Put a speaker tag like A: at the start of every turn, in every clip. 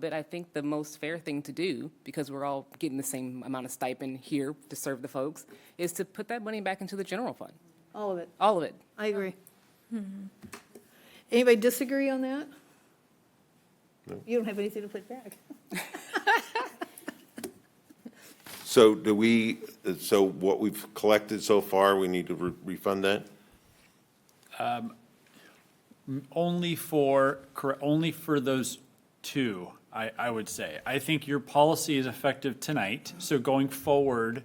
A: But I think the most fair thing to do, because we're all getting the same amount of stipend here to serve the folks, is to put that money back into the general fund,
B: All of it.
A: all of it.
B: I agree.
C: Mm-hmm.
B: Anybody disagree on that? You don't have anything to put back.
D: So do we, so what we've collected so far, we need to re- refund that?
E: Only for, correct, only for those two, I, I would say. I think your policy is effective tonight, so going forward,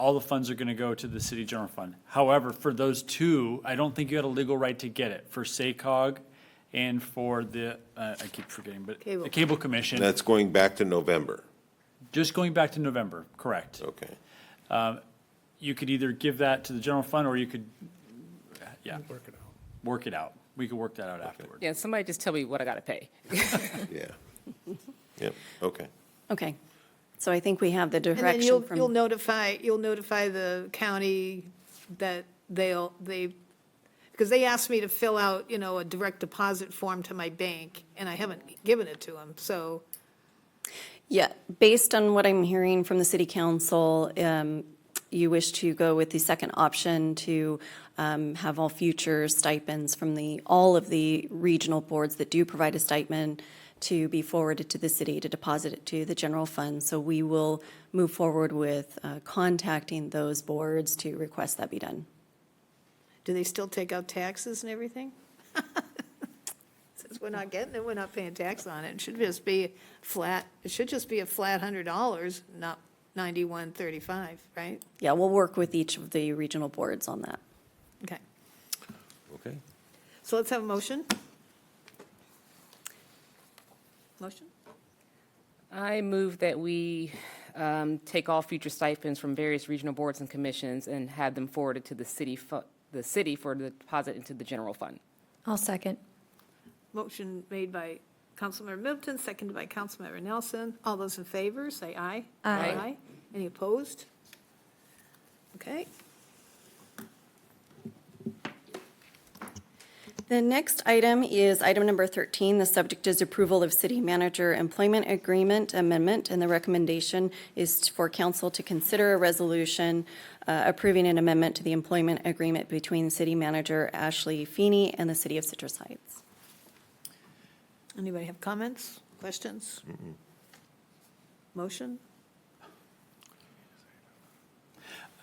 E: all the funds are gonna go to the city general fund. However, for those two, I don't think you had a legal right to get it, for SACOG and for the, uh, I keep forgetting, but
B: Cable.
E: the Cable Commission,
D: That's going back to November,
E: just going back to November, correct.
D: okay.
E: You could either give that to the general fund, or you could, yeah. Work it out. Work it out. We could work that out afterward.
A: Yeah, somebody just tell me what I gotta pay.
D: Yeah. Yep, okay.
C: Okay. So I think we have the
B: And then
C: direction
B: you'll, you'll
C: from,
B: notify, you'll notify the county that they'll, they, because they asked me to fill out, you know, a direct deposit form to my bank, and I haven't given it to them, so.
C: yeah, based on what I'm hearing from the city council, um, you wish to go with the second option to um, have all future stipends from the, all of the regional boards that do provide a stipend to be forwarded to the city to deposit it to the general fund. So we will move forward with uh, contacting those boards to request that be done.
B: Do they still take out taxes and everything? Since we're not getting it, we're not paying tax on it. It should just be flat, it should just be a flat hundred dollars, not ninety-one thirty-five, right?
C: Yeah, we'll work with each of the regional boards on that.
B: Okay,
D: Okay.
B: so let's have a motion. Motion?
A: I move that we um, take all future stipends from various regional boards and commissions and have them forwarded to the city, fu- the city for the deposit into the general fund.
F: I'll second.
B: Motion made by Councilmember Middleton, seconded by Councilmember Nelson. All those in favor, say aye.
F: Aye.
B: Any opposed? Okay,
C: The next item is item number 13. The subject is approval of city manager employment agreement amendment, and the recommendation is for council to consider a resolution uh, approving an amendment to the employment agreement between city manager Ashley Feeney and the city of Citrus Heights.
B: anybody have comments, questions? Motion?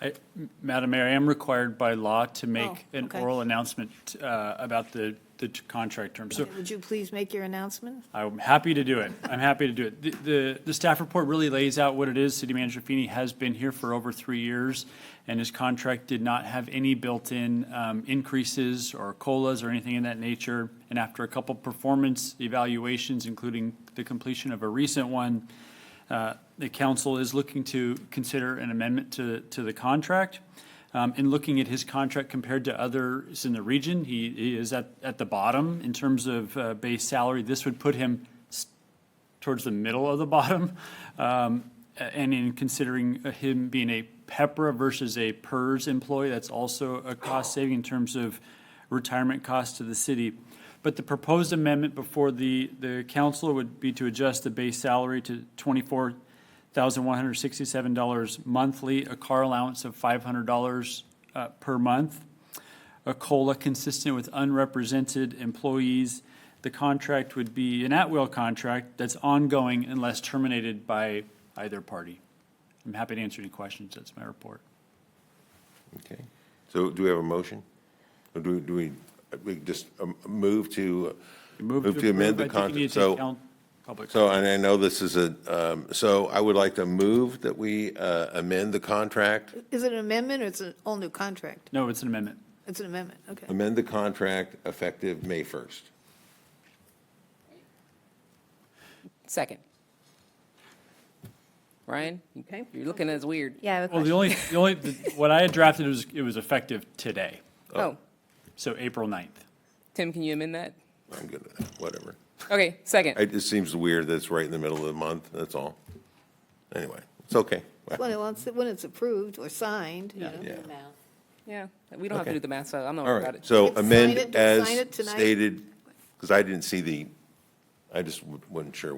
E: I- M- Madam Mayor, I am required by law to make
B: Oh,
E: an
B: okay.
E: oral announcement uh, about the, the t- contract term. So
B: Would you please make your announcement?
E: I'm happy to do it. I'm happy to do it. The- The, the staff report really lays out what it is. City Manager Feeney has been here for over three years, and his contract did not have any built-in um, increases or COLAs or anything in that nature. And after a couple performance evaluations, including the completion of a recent one, uh, the council is looking to consider an amendment to, to the contract. Um, In looking at his contract compared to others in the region, he he is at, at the bottom in terms of uh, base salary. This would put him s- towards the middle of the bottom. Um, a- And in considering uh, him being a PEPRA versus a PERS employee, that's also a cost saving in terms of retirement costs to the city. But the proposed amendment before the, the council would be to adjust the base salary to twenty-four thousand one hundred sixty-seven dollars monthly, a car allowance of five hundred dollars uh, per month a COLA consistent with unrepresented employees. The contract would be an at-will contract that's ongoing unless terminated by either party. I'm happy to answer any questions. That's my report.
D: Okay. So do we have a motion? Or do, do we, we just um, move to, move to amend the
E: approve. I
D: contract?
E: think you need to take
D: So,
E: down public-
D: so, and I know this is a, um, so I would like to move that we uh, amend the contract,
B: Is it an amendment or it's an all-new contract?
E: No, it's an amendment.
B: It's an amendment, okay.
D: amend the contract effective May 1st.
A: Second. Ryan, you-
B: Okay.
A: you're looking at us weird.
F: Yeah, I have a
E: Well, the
F: question.
E: only, the only, the- what I had drafted was, it was effective today,
A: Oh,
E: so April 9th.
A: Tim, can you amend that?
D: I'm good with that, whatever.
A: Okay, second.
D: It just seems weird that it's right in the middle of the month, that's all. Anyway, it's okay.
B: When it- once it- when it's approved or signed, you know.
D: Yeah.
A: Yeah, we don't have to
D: Okay.
A: do the math, so I'm not
D: All
A: worried about
D: right,
A: it.
D: so
B: Sign it-
D: amend
B: sign
D: as
B: it tonight.
D: stated, because I didn't see the, I just wasn't sure